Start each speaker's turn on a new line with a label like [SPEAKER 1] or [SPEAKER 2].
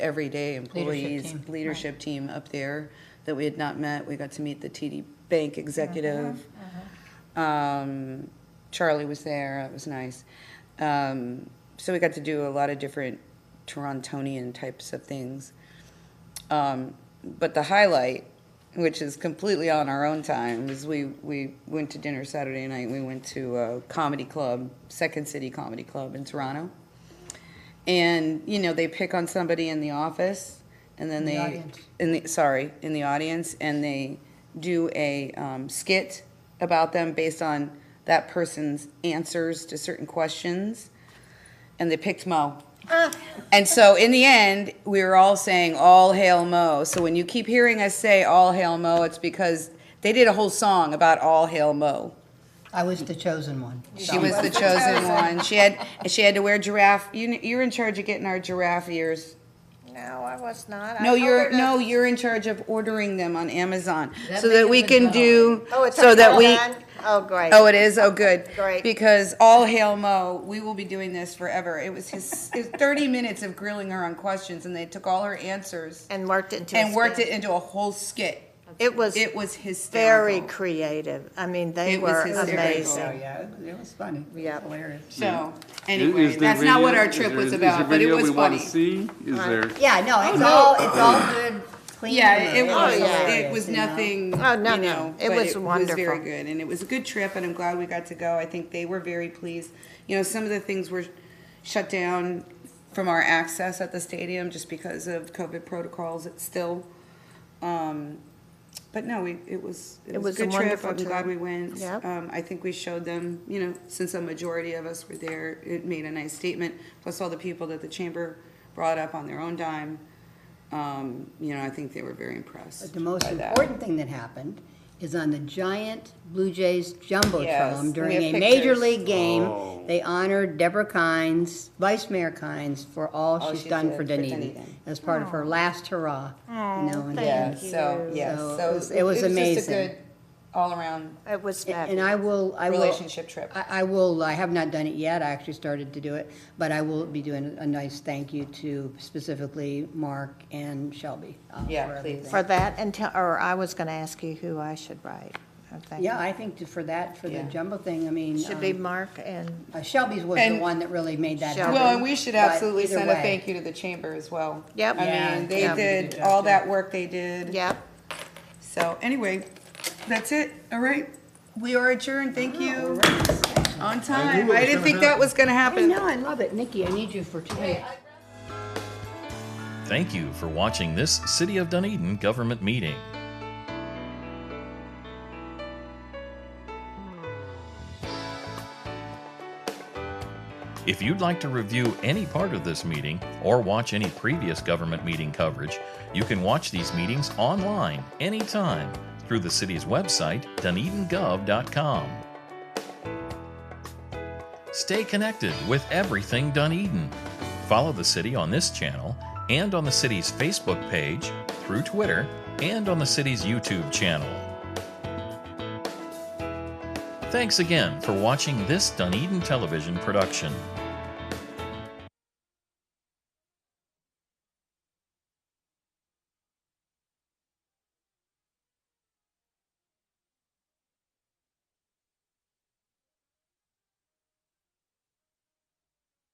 [SPEAKER 1] everyday employees,
[SPEAKER 2] team, right.
[SPEAKER 1] leadership team up there that we had not met. We got to meet the TD Bank executive.
[SPEAKER 2] Uh-huh,
[SPEAKER 1] Um, Charlie was there, that was nice. Um, so we got to do a lot of different Torontonian types of things. Um, but the highlight, which is completely on our own time, is we, we went to dinner Saturday night. We went to a comedy club, Second City Comedy Club in Toronto. And, you know, they pick on somebody in the office and then
[SPEAKER 2] In the
[SPEAKER 1] they,
[SPEAKER 2] audience.
[SPEAKER 1] in the, sorry, in the audience, and they do a um, skit about them based on that person's answers to certain questions. And they picked Mo. And so in the end, we were all saying "All Hail Mo." So when you keep hearing us say "All Hail Mo," it's because they did a whole song about "All Hail Mo."
[SPEAKER 2] I was the chosen one.
[SPEAKER 1] She was the chosen one. She had she had to wear giraffe. You, you're in charge of getting our giraffe ears.
[SPEAKER 3] No, I was not. I
[SPEAKER 1] No, you're
[SPEAKER 3] ordered a-
[SPEAKER 1] no, you're in charge of ordering them on Amazon
[SPEAKER 2] That
[SPEAKER 1] so
[SPEAKER 2] make
[SPEAKER 1] that
[SPEAKER 2] them
[SPEAKER 1] we
[SPEAKER 2] a
[SPEAKER 1] can
[SPEAKER 2] dollar?
[SPEAKER 1] do
[SPEAKER 3] Oh, it's
[SPEAKER 1] so
[SPEAKER 3] a
[SPEAKER 1] that we.
[SPEAKER 3] John? Oh, great.
[SPEAKER 1] Oh, it is. Oh, good.
[SPEAKER 3] Great.
[SPEAKER 1] Because all hail Mo. We will be doing this forever. It was his, his 30 minutes of grilling her on questions, and they took all her answers
[SPEAKER 3] And worked into.
[SPEAKER 1] and
[SPEAKER 3] a
[SPEAKER 1] worked it
[SPEAKER 3] skin.
[SPEAKER 1] into a whole skit.
[SPEAKER 3] It was
[SPEAKER 1] It was hysterical.
[SPEAKER 3] very creative. I mean, they
[SPEAKER 1] It was
[SPEAKER 3] were
[SPEAKER 1] hysterical.
[SPEAKER 3] amazing.
[SPEAKER 4] Oh, yeah, it- it was funny. It was
[SPEAKER 3] Yep.
[SPEAKER 4] Hilarious.
[SPEAKER 1] So
[SPEAKER 5] Is-
[SPEAKER 1] anyway,
[SPEAKER 5] is there
[SPEAKER 1] that's not what
[SPEAKER 5] video-
[SPEAKER 1] our
[SPEAKER 5] is
[SPEAKER 1] trip
[SPEAKER 5] there-
[SPEAKER 1] was about, but
[SPEAKER 5] Is
[SPEAKER 1] it
[SPEAKER 5] there
[SPEAKER 1] was
[SPEAKER 5] video we want
[SPEAKER 1] funny.
[SPEAKER 5] to see? Is there?
[SPEAKER 2] Yeah, no, it's all, it's all good, clean.
[SPEAKER 1] Oh, Yeah, it
[SPEAKER 2] and
[SPEAKER 1] was,
[SPEAKER 3] Oh, yeah.
[SPEAKER 1] it
[SPEAKER 2] hilarious,
[SPEAKER 1] was
[SPEAKER 2] you know?
[SPEAKER 1] nothing, you
[SPEAKER 3] Oh, no, no.
[SPEAKER 1] know,
[SPEAKER 3] It
[SPEAKER 1] but
[SPEAKER 3] was
[SPEAKER 1] It was very
[SPEAKER 3] wonderful.
[SPEAKER 1] good, and it was a good trip, and I'm glad we got to go. I think they were very pleased. You know, some of the things were shut down from our access at the stadium just because of COVID protocols, it's still, um, but no, we, it was, it was a good trip.
[SPEAKER 3] wonderful
[SPEAKER 1] I'm glad
[SPEAKER 3] trip.
[SPEAKER 1] we went.
[SPEAKER 3] Yep.
[SPEAKER 1] Um, I think we showed them, you know, since a majority of us were there, it made a nice statement, plus all the people that the chamber brought up on their own dime. Um, you know, I think they were very impressed.
[SPEAKER 4] But the most
[SPEAKER 1] by that.
[SPEAKER 4] important thing that happened is on the giant Blue Jays
[SPEAKER 1] Yes, we
[SPEAKER 4] jumbotron during
[SPEAKER 1] have
[SPEAKER 4] a major
[SPEAKER 1] pictures.
[SPEAKER 4] league
[SPEAKER 5] Oh.
[SPEAKER 4] game, they honored Deborah Kynes, Vice Mayor Kynes, for all
[SPEAKER 1] All
[SPEAKER 4] she's
[SPEAKER 1] she
[SPEAKER 4] done
[SPEAKER 1] did for
[SPEAKER 4] for Dunedin
[SPEAKER 1] Dunedin.
[SPEAKER 4] as part of her last hurrah. you know, and-
[SPEAKER 1] Yeah, so, yeah,
[SPEAKER 4] So
[SPEAKER 1] so
[SPEAKER 4] it was- it was
[SPEAKER 1] just a
[SPEAKER 4] amazing.
[SPEAKER 1] good All-around
[SPEAKER 3] It was
[SPEAKER 4] And
[SPEAKER 3] fabulous.
[SPEAKER 4] I will, I will.
[SPEAKER 1] relationship trip.
[SPEAKER 4] I, I will, I have not done it yet, I actually started to do it, but I will be doing a nice thank you to specifically Mark and Shelby. uh,
[SPEAKER 1] Yeah,
[SPEAKER 4] for
[SPEAKER 1] please.
[SPEAKER 4] everything.
[SPEAKER 3] For that and tell, or I was going to ask you who I should write. I think.
[SPEAKER 4] Yeah, I think to- for that, for the
[SPEAKER 1] Yeah.
[SPEAKER 4] jumbo thing, I mean.
[SPEAKER 3] Should be
[SPEAKER 4] um,
[SPEAKER 3] Mark and,
[SPEAKER 4] uh, Shelby's was the
[SPEAKER 1] And-
[SPEAKER 4] one that really made that
[SPEAKER 3] Shelby.
[SPEAKER 4] happen.
[SPEAKER 1] Well, and we should
[SPEAKER 4] but
[SPEAKER 1] absolutely
[SPEAKER 4] either
[SPEAKER 1] send a
[SPEAKER 4] way,
[SPEAKER 1] thank you to the chamber as well.
[SPEAKER 3] Yep.
[SPEAKER 1] I
[SPEAKER 4] Yeah,
[SPEAKER 1] mean, they
[SPEAKER 3] yeah.
[SPEAKER 1] did all that work they did.
[SPEAKER 3] yep.
[SPEAKER 1] So anyway, that's it. All right. We are adjourned. Thank you. On time. I didn't think that was gonna
[SPEAKER 4] I
[SPEAKER 1] happen.
[SPEAKER 4] know, I love it. Nikki, I need you for two minutes.
[SPEAKER 6] Thank you for watching this City of Dunedin government meeting. If you'd like to review any part of this meeting or watch any previous government meeting coverage, you can watch these meetings online anytime through the city's website, dunedingov.com. Stay connected with everything Dunedin. Follow the city on this channel and on the city's Facebook page, through Twitter, and on the city's YouTube channel. Thanks again for watching this Dunedin Television production.